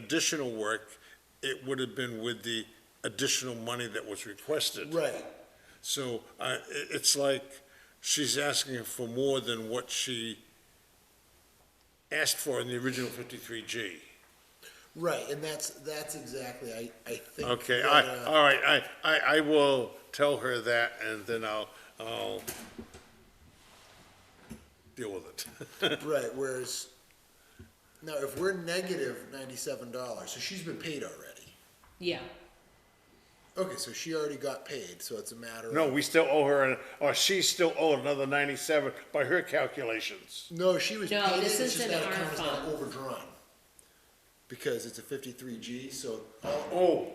additional work, it would have been with the additional money that was requested. Right. So I, i- it's like she's asking for more than what she asked for in the original 53G. Right, and that's, that's exactly, I, I think. Okay, that, I, uh, all right, I, I, I will tell her that and then I'll, I'll deal with it. Right, whereas, now, if we're negative ninety-seven dollars, so she's been paid already. Yeah, Okay, so she already got paid, so it's a matter of. No, we still owe her, an- or she still owed another 97 by her calculations. No, she was No, paid, this it's is just an that arm account is not fund. overdrawn. Because it's a fifty-three G, so, all-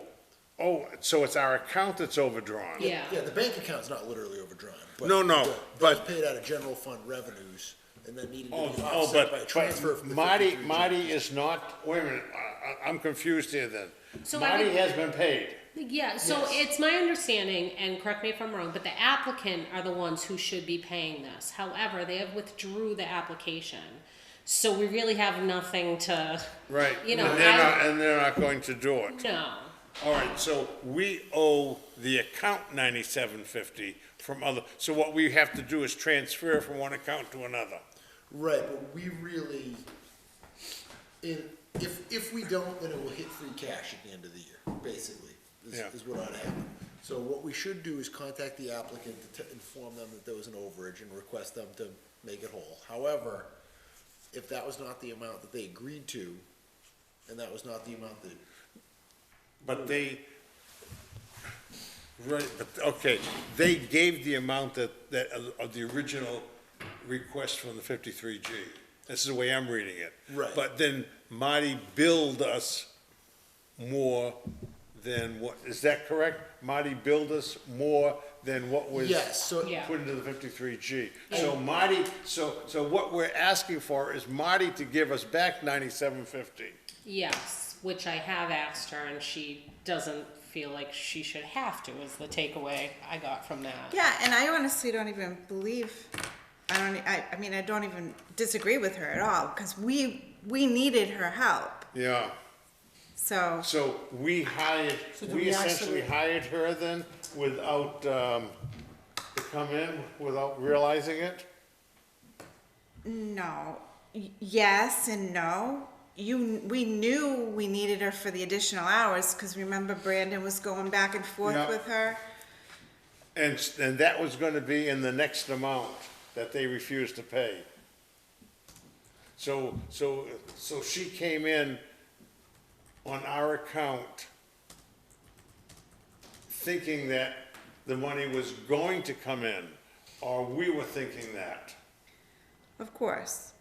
Oh, oh, so it's our account that's overdrawn? yeah. yeah, the bank account's not literally overdrawn. but No, no, the- that but- was Paid out of general fund revenues, and then needed to be Oh, oh, offset by a but, transfer but from the Marty, 53G. Marty is not, wait a minute, I- I, I'm confused here then. So I Marty would- has been paid. Yeah, so it's my understanding, and correct me if I'm wrong, but the applicant are the ones who should be paying this. However, they have withdrew the application. So we really have nothing to, Right. You know, And they're I- not, and they're not going to do it. no. All right, so we owe the account ninety-seven fifty from other, so what we have to do is transfer from one account to another. Right, but we really, in, if, if we don't, then it will hit free cash at the end of the year, basically, is, Yeah. is what ought to happen. So what we should do is contact the applicant to t- inform them that there was an overage and request them to make it whole. However, if that was not the amount that they agreed to, and that was not the amount that, But they, right, but, okay, they gave the amount that, that, uh, of the original request from the fifty-three G. This is the way I'm reading it. Right. But then Marty billed us more than what, is that correct? Marty billed us more than what was. yes, so, Yeah. Put into the fifty-three G. So Marty, so, so what we're asking for is Marty to give us back ninety-seven fifty. Yes, which I have asked her, and she doesn't feel like she should have to, is the takeaway I got from that. Yeah, and I honestly don't even believe. I don't. I, I mean, I don't even disagree with her at all because we we needed her help. Yeah. So So we hired, do we we essentially actually- hired her then without, um, to come in without realizing it? no, Y- yes and no. You we knew we needed her for the additional hours because remember Brandon was going back and forth Yeah. with her. And, s- and that was gonna be in the next amount that they refused to pay. So, so, so she came in on our account thinking that the money was going to come in, or we were thinking that. Of course.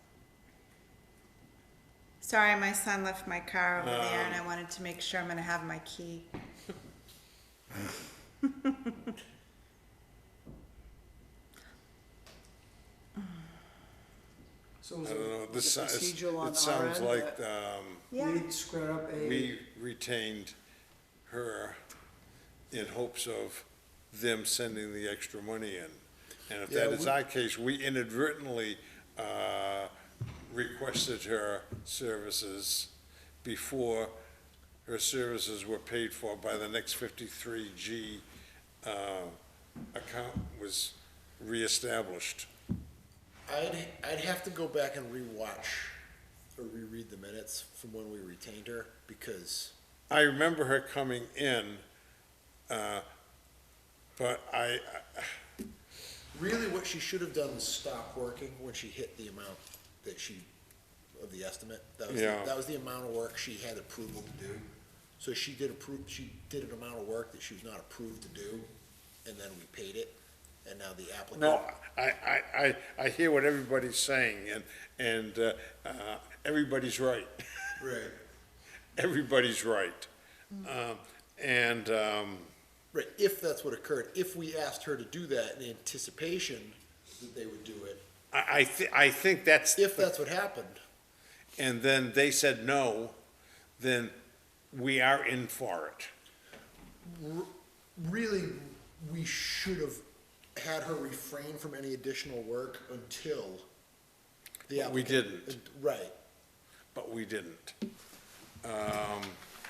Sorry, my son left my car over there, and I wanted to make sure I'm gonna have my key. So is I don't know, it this, was it sounds- procedural on it sounds our end like, that um, Yeah. We squared up a, we retained her in hopes of them sending the extra money in. And if that Yeah, is we- our case, we inadvertently uh, requested her services before her services were paid for by the next 53G uh, account was reestablished. I'd, I'd have to go back and rewatch or reread the minutes from when we retained her, because I remember her coming in, uh, but I, Really, what she should have done was stop working when she hit the amount that she, of the estimate. That was, the- Yeah. that was the amount of work she had approval to do. So she did approve, she did an amount of work that she was not approved to do, and then we paid it, and now the applicant. No, I, I, I, I hear what everybody's saying, and, and, uh, uh, everybody's right. Right, Everybody's right. Um, and, um, right, if that's what occurred, if we asked her to do that in anticipation that they would do it, I, I thi- I think that's. if that's what happened, And then they said no, then we are in for it. r- really, we should have had her refrain from any additional work until the But we applicant. didn't. Right, But we didn't. um,